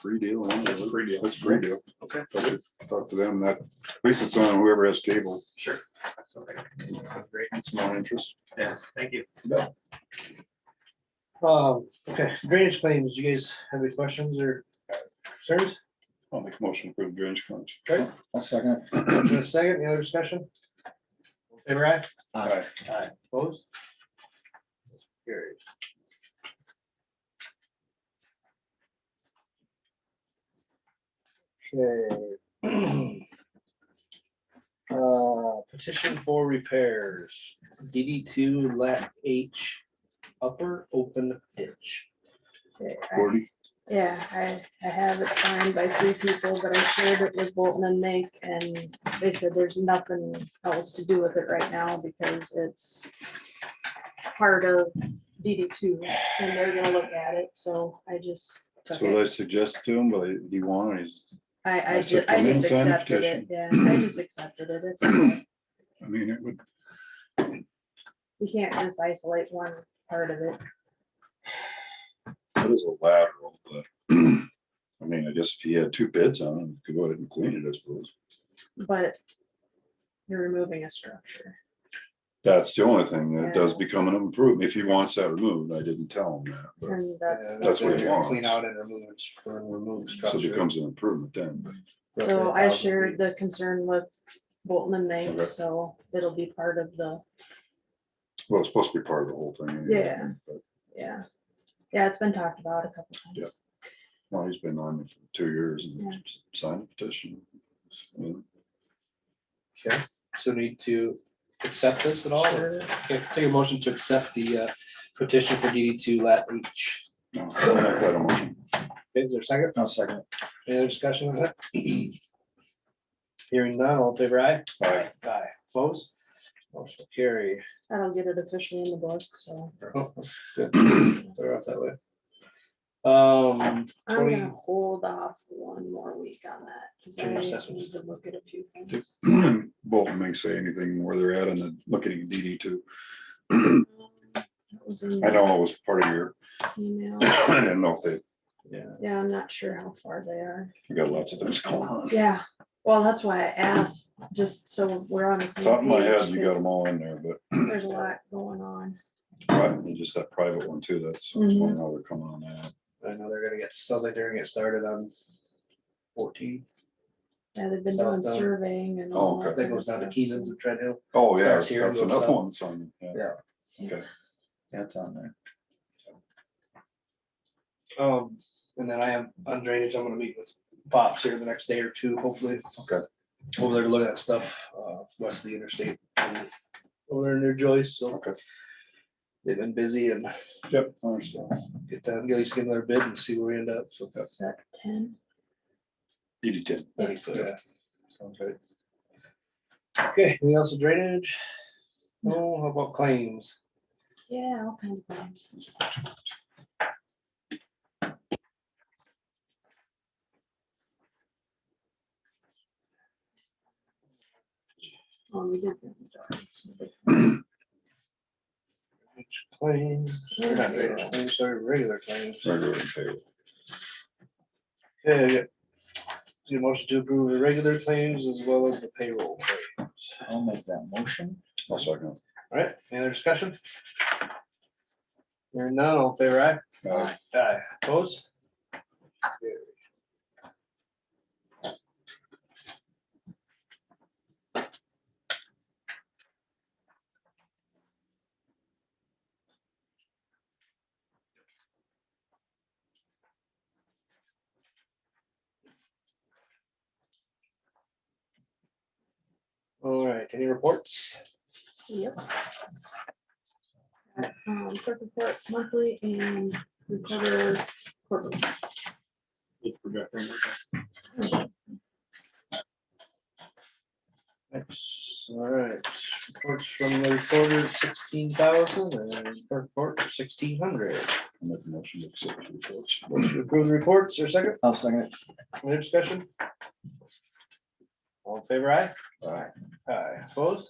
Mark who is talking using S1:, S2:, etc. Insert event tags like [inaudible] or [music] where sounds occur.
S1: free deal. isn't it?
S2: That's a free deal.
S1: That's a free deal.
S2: Okay.
S1: Okay, Talk to them, that, at least it's on whoever has cable,
S2: Sure. Okay. Sounds Great.
S1: it's my interest.
S2: Yeah, thank you.
S3: Um, okay, drainage claims, you guys have any questions or concerns?
S1: I'll make a motion for the drainage claims.
S3: Okay,
S4: I'll second
S3: in a second, any other discussion? Favor aye?
S1: Aye.
S3: Aye. Opposed? Carried. Okay. [clears throat] Uh, petition for repairs, DD two lat H, upper open ditch.
S1: Gordy,
S5: Yeah, I, I have it signed by three people, but I shared it with Bolton and Make, and they said there's nothing else to do with it right now because it's part of DD two, and they're gonna look at it, so I just
S1: that's
S5: took
S1: what I
S5: it.
S1: suggested to him, but he wanted, he's,
S5: I,
S1: I
S5: I
S1: said,
S5: just, I
S1: "Come in,
S5: just
S1: sign the
S5: accepted it, yeah, I just accepted it, it's, okay.
S1: I mean, it would,
S5: we can't just isolate one part of it.
S1: it is a lateral, but. [clears throat] I mean, I guess if he had two bids on it, he could go ahead and clean it, I suppose.
S5: but you're removing a structure.
S1: That's the only thing that does
S5: Yeah.
S1: become an improvement, if he wants that removed, I didn't tell him that, but.
S5: And that's.
S3: Yeah,
S1: That's what
S5: the-
S1: you want.
S3: Clean out and remove, it str- remove
S1: So it
S3: structure.
S1: becomes an improvement then, but
S5: So
S3: Roughly
S5: I
S3: a thousand
S5: shared the concern with Bolton and
S1: Okay.
S5: May, so it'll be part of the,
S1: well, it's supposed to be part of the whole thing. anyway,
S5: Yeah.
S1: but-
S5: yeah. Yeah, it's been talked about a couple
S1: Yeah.
S5: times.
S1: Well, he's been on it for two years
S5: Yeah.
S1: and signed a petition. You
S3: Okay, so need to accept this at all? or- Okay, take a motion to accept the uh, petition for DD two lat H.
S1: know, I'll make that a motion.
S3: Okay, Is there a second?
S4: it. I'll second it.
S3: Any other discussion on that? [clears throat] Hearing none, all in favor aye?
S1: Aye.
S3: Aye. Opposed? Motion
S1: [clears throat]
S3: carry.
S5: That'll get it officially in the book, so
S3: They're off that way. Um,
S5: I'm
S3: Twenty-
S5: gonna hold off one more week on that, because I
S3: Change assessments.
S5: need to look at a few things.
S1: [clears throat] Bolton may say anything where they're at and then looking at DD two. [clears throat]
S5: Um, that was in
S1: I know it was part of your, [clears throat]
S5: the Email,
S1: I didn't know if they,
S5: yeah, I'm not sure how far they are,
S1: we got lots of things going on.
S5: yeah, well, that's why I asked, just so we're on the same.
S1: Top of my head,
S5: page,
S1: you got
S5: 'cause
S1: them all in there, but
S5: There's a lot going on.
S1: private- you just that private one too, that's one now they're coming on that.
S3: I know they're gonna get, sounds like they're gonna get started on fourteen.
S5: Yeah, they've been
S3: South
S5: doing
S3: Downs.
S5: surveying and.
S1: Oh,
S5: all
S1: okay.
S3: I
S5: that
S3: think it
S5: kind of
S3: goes down to
S5: stuff,
S3: Keenan's
S5: so-
S3: and Tread Hill.
S1: Oh, yeah,
S3: Starts here and
S1: that's
S3: goes
S1: another
S3: south.
S1: one, son. Yeah,
S3: Yeah.
S1: okay.
S4: That's on there.
S3: Um, and then I am on drainage, I'm gonna meet with Pops here the next day or two, hopefully.
S1: Okay.
S3: Over there to look at stuff, uh, west of the interstate. and Over there near Joyce, so
S1: Okay.
S3: they've been busy and
S1: Yep. I understand.
S3: get them, get these, give their bid and see where we end up, so.
S5: Is that ten?
S1: DD ten.
S3: I think so, yeah. Sounds good. Okay, anything else with drainage? No, how about claims?
S5: Yeah, all kinds of things. Oh, we did. get the dogs.
S3: Claims, or not drainage claims, sorry, regular claims.
S1: Regular and payroll.
S3: Yeah, yeah. Do a motion to approve the regular claims as well as the payroll claims.
S4: I'll make that motion.
S1: I'll second.
S3: Alright, any other discussion? Hearing none, all in favor aye?
S1: it. Uh,
S3: Aye, opposed? Carried. All right, any reports?
S5: Yep. Got, Um, clerk report monthly and recorder quarterly.
S3: Thanks, alright, reports from the recorder sixteen thousand and clerk report sixteen hundred.
S1: I'll Make a motion to accept the reports.
S3: Approve the reports, or second,
S4: I'll second it.
S3: any discussion? All in favor aye?
S4: All right.
S3: Aye, opposed?